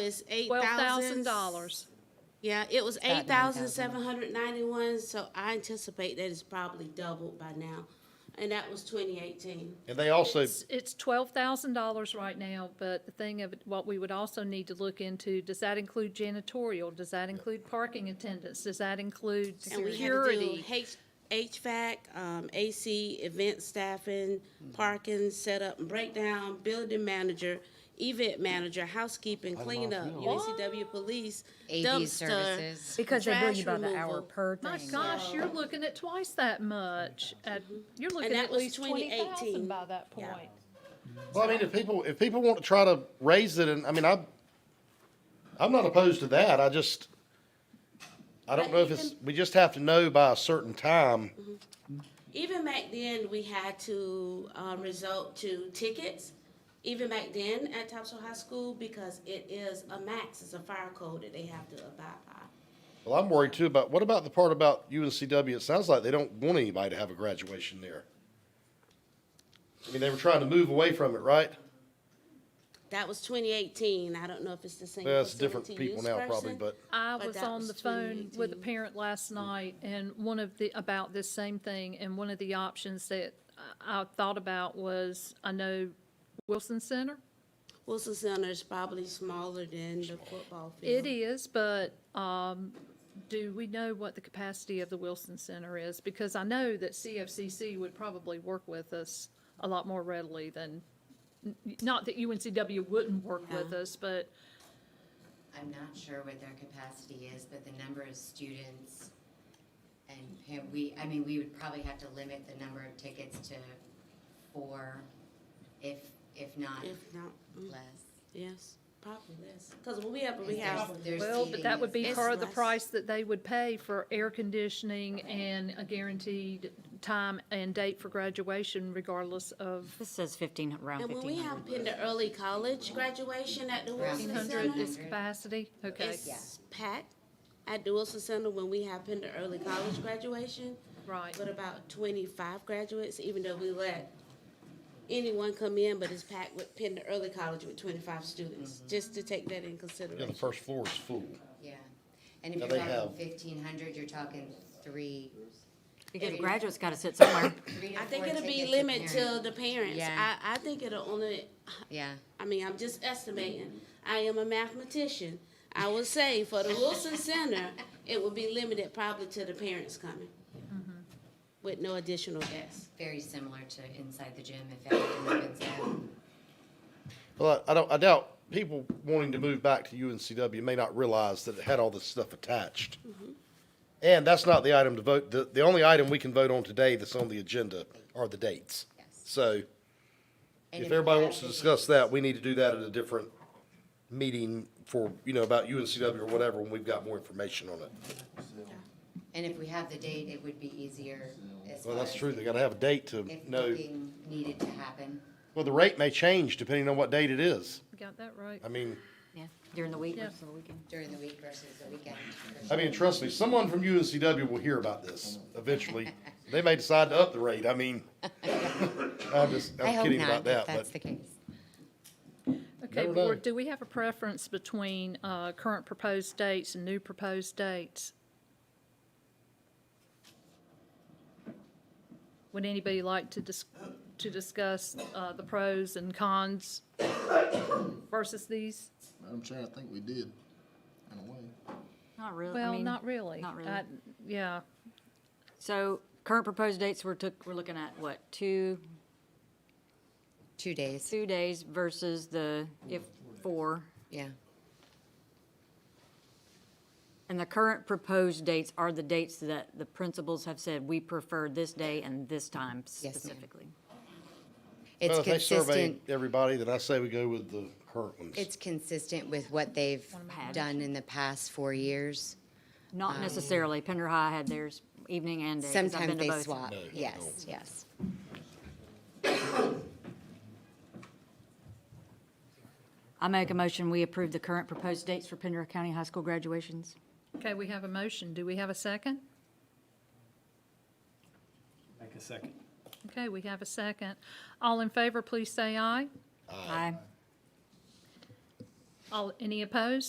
It's eight Twelve thousand thousand dollars. Yeah, it was nine eight thousand thousand. seven hundred ninety-one, so I anticipate that it's probably doubled by now. And that was twenty eighteen. And they also, It's- It's twelve thousand dollars right now, but the thing of, it- what we would also need to look into, does that include janitorial? Does that include parking attendance? Does that include And we had to do security? H, HVAC, um, AC, event staffing, parking, setup and breakdown, building manager, event manager, housekeeping, cleanup, UNCW police, AV dumpster. services. Because they bill you by Trash the hour removal. per My thing. gosh, you're looking at twice that much. Oh At- You're looking that at was least twenty 2018. thousand by that Yeah. point. well, I mean, if people, if people want to try to raise it, and, I mean, I'm, I'm not opposed to that, I just, I don't know if it's, we just have to know by a certain time. Mm-hmm. Even back then, we had to, um, resort to tickets, even back then at Topsail High School, because it is a max, it's a fire code that they have to abide by. Well, I'm worried too about, what about the part about UNCW? It sounds like they don't want anybody to have a graduation there. I mean, they were trying to move away from it, right? That was twenty eighteen, I don't know if it's the same. Well, it's different facility people use now probably, person. but, I But was that on was the phone with a 2018. parent last night and one of the, about this same thing, and one of the options that I I thought about was, I know Wilson Center? Wilson Center is probably smaller than the football It field. is, but, um, do we know what the capacity of the Wilson Center is? Because I know that CFCC would probably work with us a lot more readily than, n- not that UNCW wouldn't work with us, but I'm not sure what their capacity is, but the number of students and pa- we, I mean, we would probably have to limit the number of tickets to four, if, if not If not, mm, less. yes, probably less, because we have, we Because have, there's- there's Well, but seating that is- would be It's part of the less. price that they would pay for air conditioning and a guaranteed time and date for graduation regardless of, This says fifteen, around and when we have in the early college graduation at the Around Wilson 1,500 Center, is capacity? Okay, it's packed. At the Wilson Center, when we have in the early college graduation, right. But about twenty-five graduates, even though we let anyone come in, but it's packed with Penn to Early College with twenty-five students, just to take that in yeah, the consideration. first floor is full. Yeah, and if Yeah, you're they talking have- fifteen hundred, you're talking three, Because the graduate's gotta sit somewhere. three to I think four it'll be tickets a limited to parent. the parents. Yeah. I, I think it'll only, Yeah, I mean, I'm just estimating. I am a mathematician. I would say for the Wilson Center, it will be limited probably to the parents coming with no additional guests. very similar to inside the gym if everything opens up. Well, I I don't, I doubt people wanting to move back to UNCW may not realize that it had all this stuff attached. Mm-hmm. And that's not the item to vote, the, the only item we can vote on today that's on the agenda are the dates. Yes. So And if you everybody have wants to the- discuss that, we need to do that Mhm. at a different meeting for, you know, about UNCW or whatever, when we've got more information on it. And if we have the date, it would be easier as far Well, as. that's true, they gotta have a date to If know, booking needed to happen. well, the rate may change depending on what date it is. Got that right. I mean. Yeah, during the week Yeah. or the weekend. during the week versus the weekend. I mean, trust me, someone from UNCW will hear about this eventually. They may decide to up the rate. I mean, I'm just, I I'm hope kidding not, about that, if but that's the case. Okay, Never know. board, do we have a preference between, uh, current proposed dates and new proposed dates? Would anybody like to dis- to discuss, uh, the pros and cons versus these? Madam Chair, I think we did, in a way. Not really. I Well, mean, not really. not really. I- Yeah, So current proposed dates we're took, we're looking at what, two, Two days, two days versus the, if, four? yeah. And the current proposed dates are the dates that the principals have said, we prefer this day and this time ma'am. specifically. It's well, if they survey consistent, everybody, then I say we go with the current ones. it's consistent with what they've Had. done in the past four years. Not necessarily, Pender High had theirs evening and day. 'cause I've Sometimes been to they both. swap, No, no. yes, yes. I make a motion, we approve the current proposed dates for Pender County High School graduations. okay, we have a motion. Do we have a second? Make a second. Okay, we have a second. All in favor, please say aye. Aye. All, any opposed?